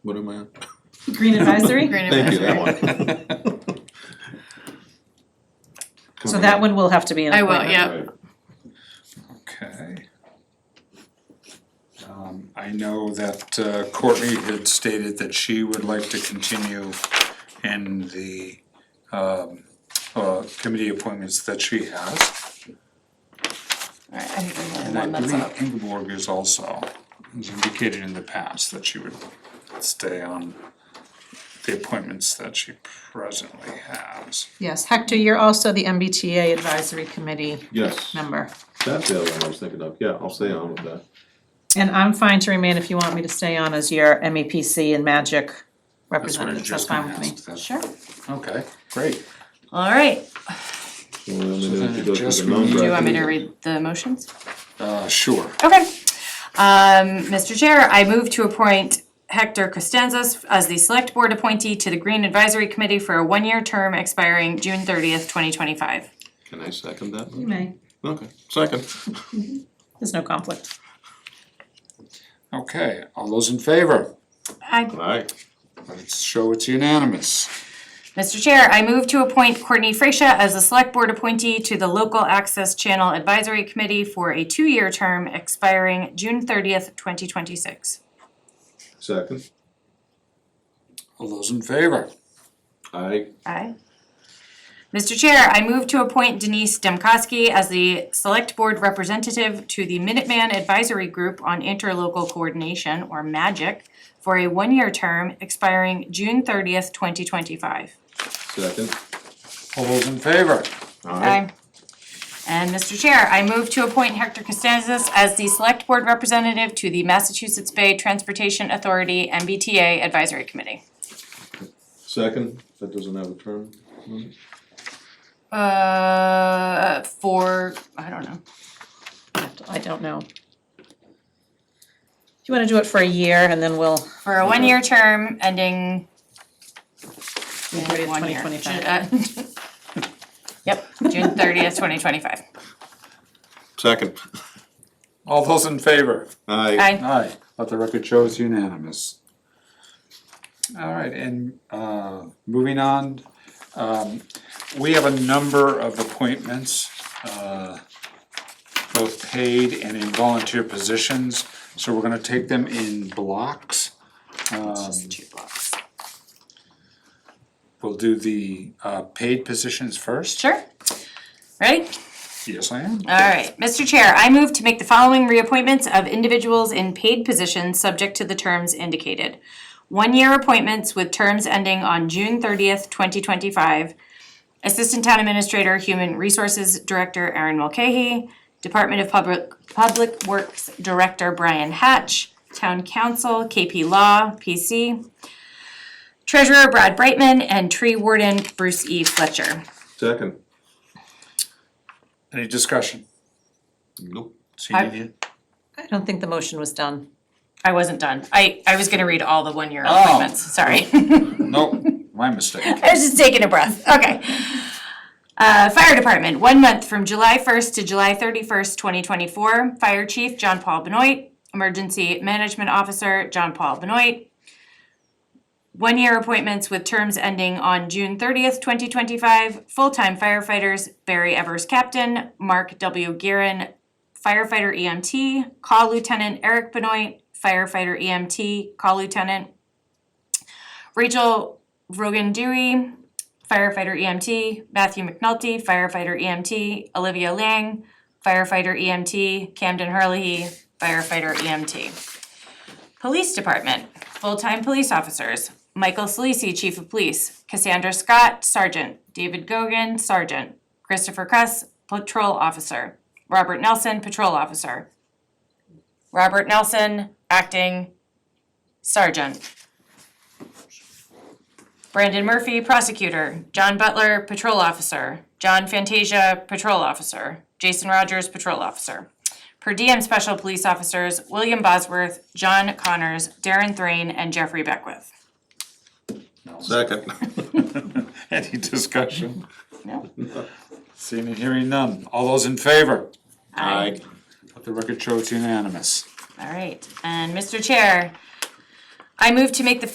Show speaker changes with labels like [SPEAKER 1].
[SPEAKER 1] What am I on?
[SPEAKER 2] Green advisory,
[SPEAKER 3] Green
[SPEAKER 1] Thank you,
[SPEAKER 3] advisory.
[SPEAKER 1] that one.
[SPEAKER 2] so that one will have to be an
[SPEAKER 3] I will,
[SPEAKER 2] appointment.
[SPEAKER 3] yeah.
[SPEAKER 1] Right.
[SPEAKER 4] Okay. Um, I know that uh, Courtney had stated that she would like to continue in the, um, uh, committee appointments that she has.
[SPEAKER 3] Alright, I think we have
[SPEAKER 4] And I
[SPEAKER 3] one that's
[SPEAKER 4] believe
[SPEAKER 3] up.
[SPEAKER 4] Ingeborg is also, has indicated in the past that she would stay on the appointments that she presently has.
[SPEAKER 2] Yes, Hector, you're also the MBTA advisory committee
[SPEAKER 1] Yes,
[SPEAKER 2] member.
[SPEAKER 1] that's the other one I was thinking of, yeah, I'll stay on with that.
[SPEAKER 2] And I'm fine to remain if you want me to stay on as your MEPC and Magic representative, that's
[SPEAKER 4] just
[SPEAKER 2] fine with
[SPEAKER 4] asked,
[SPEAKER 2] me.
[SPEAKER 4] that's-
[SPEAKER 2] Sure.
[SPEAKER 4] Okay, great.
[SPEAKER 3] Alright,
[SPEAKER 1] So then we
[SPEAKER 4] then
[SPEAKER 1] need to
[SPEAKER 4] it
[SPEAKER 1] go through
[SPEAKER 4] just
[SPEAKER 1] the
[SPEAKER 4] means-
[SPEAKER 1] number.
[SPEAKER 3] do you want me to read the motions?
[SPEAKER 4] Uh, sure.
[SPEAKER 3] Okay. Um, Mr. Chair, I move to appoint Hector Costanzas as the Select Board appointee to the Green Advisory Committee for a one-year term expiring June thirtieth, twenty twenty-five.
[SPEAKER 1] Can I second that?
[SPEAKER 2] You may,
[SPEAKER 1] Okay, second.
[SPEAKER 2] there's no conflict.
[SPEAKER 4] Okay, all those in favor?
[SPEAKER 3] I,
[SPEAKER 1] Alright,
[SPEAKER 4] Let's show it's unanimous.
[SPEAKER 3] Mr. Chair, I move to appoint Courtney Freesia as the Select Board appointee to the Local Access Channel Advisory Committee for a two-year term expiring June thirtieth, twenty twenty-six.
[SPEAKER 1] second.
[SPEAKER 4] All those in favor?
[SPEAKER 1] Aye,
[SPEAKER 3] Aye. Mr. Chair, I move to appoint Denise Demkowski as the Select Board Representative to the Minuteman Advisory Group on Interlocal Coordination, or MAGIC, for a one-year term expiring June thirtieth, twenty twenty-five.
[SPEAKER 1] second.
[SPEAKER 4] All those in favor?
[SPEAKER 1] Aye,
[SPEAKER 3] And Mr. Chair, I move to appoint Hector Costanzas as the Select Board Representative to the Massachusetts Bay Transportation Authority MBTA Advisory Committee.
[SPEAKER 1] second, that doesn't have a term. limit.
[SPEAKER 3] Uh, for, I don't know.
[SPEAKER 2] I don't know. Do you wanna do it for a year and then we'll,
[SPEAKER 3] For a one-year term ending.
[SPEAKER 2] June 30th,
[SPEAKER 3] one year.
[SPEAKER 2] 2025.
[SPEAKER 3] Ju- uh, Yep, June thirtieth, twenty twenty-five.
[SPEAKER 1] Second.
[SPEAKER 4] All those in favor?
[SPEAKER 1] Aye,
[SPEAKER 3] Aye.
[SPEAKER 4] Aye. Let the record show it's unanimous. All right, and uh, moving on, um, we have a number of appointments, uh, both paid and in volunteer positions, so we're gonna take them in blocks.
[SPEAKER 3] It's
[SPEAKER 4] Um,
[SPEAKER 3] just two blocks.
[SPEAKER 4] We'll do the uh, paid positions first.
[SPEAKER 3] Sure. Ready?
[SPEAKER 4] Yes, I am.
[SPEAKER 3] All right, Mr. Chair, I move to make the following reappointments of individuals in paid positions subject to the terms indicated. One-year appointments with terms ending on June thirtieth, twenty twenty-five. Assistant Town Administrator, Human Resources Director Erin Mulcahy, Department of Public, Public Works Director Brian Hatch, Town Council, KP Law, PC, Treasurer Brad Brightman, and Tree Warden Bruce E. Fletcher.
[SPEAKER 1] second.
[SPEAKER 4] Any discussion?
[SPEAKER 1] Nope.
[SPEAKER 4] See
[SPEAKER 3] I-
[SPEAKER 4] any-
[SPEAKER 2] I don't think the motion was done.
[SPEAKER 3] I wasn't done. I, I was gonna read all the one-year
[SPEAKER 4] Oh.
[SPEAKER 3] appointments, sorry.
[SPEAKER 4] No, my mistake.
[SPEAKER 3] I was just taking a breath, okay. Uh, fire department, one month from July first to July thirty-first, twenty twenty-four, fire chief John Paul Benoit, emergency management officer John Paul Benoit. One-year appointments with terms ending on June thirtieth, twenty twenty-five, full-time firefighters Barry Evers Captain, Mark W. Guerin, firefighter EMT, call lieutenant Eric Benoit, firefighter EMT, call lieutenant. Rachel Rogan Dewey, firefighter EMT, Matthew McNulty, firefighter EMT, Olivia Lang, firefighter EMT, Camden Harley, firefighter EMT. Police Department, full-time police officers, Michael Solisi, Chief of Police, Cassandra Scott, Sergeant, David Gogan, Sergeant, Christopher Kress, Patrol Officer, Robert Nelson, Patrol Officer, Robert Nelson, Acting Sergeant, Brandon Murphy, prosecutor. John Butler, patrol officer. John Fantasia, patrol officer. Jason Rogers, patrol officer. Per diem special police officers, William Bosworth, John Connors, Darren Thrain, and Jeffrey Beckwith.
[SPEAKER 1] Second.
[SPEAKER 4] Any discussion?
[SPEAKER 3] No?
[SPEAKER 4] Seeing and hearing none. All those in favor?
[SPEAKER 1] Aye,
[SPEAKER 4] Let the record show it's unanimous.
[SPEAKER 3] All right, and Mr. Chair, I move to make the